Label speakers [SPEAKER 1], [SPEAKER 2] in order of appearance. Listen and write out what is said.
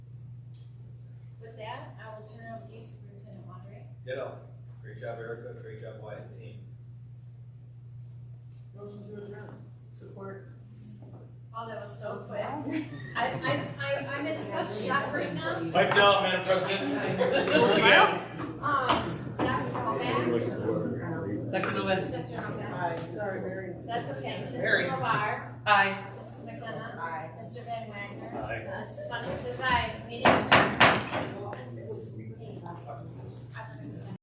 [SPEAKER 1] With that, I will turn over to you, Superintendent Wandery.
[SPEAKER 2] Ditto. Great job, Erica. Great job, Wyatt, team.
[SPEAKER 3] Motion to adjourn. Support.
[SPEAKER 1] Oh, that was so quick. I, I, I, I'm in such shock right now. Um,
[SPEAKER 4] Pipe down, Madam President.
[SPEAKER 1] Ma'am? Um, Dr. Novak,
[SPEAKER 5] Dr. Novak?
[SPEAKER 1] Dr. Novak.
[SPEAKER 3] Aye, sorry, Mary.
[SPEAKER 1] That's okay.
[SPEAKER 2] Mary.
[SPEAKER 1] Mrs. Mobar,
[SPEAKER 5] Aye.
[SPEAKER 1] Mrs. McKenna,
[SPEAKER 3] Aye.
[SPEAKER 1] Mr. Van Wagner.
[SPEAKER 4] Aye.
[SPEAKER 1] Mrs. Bunting says aye. Meeting adjourned.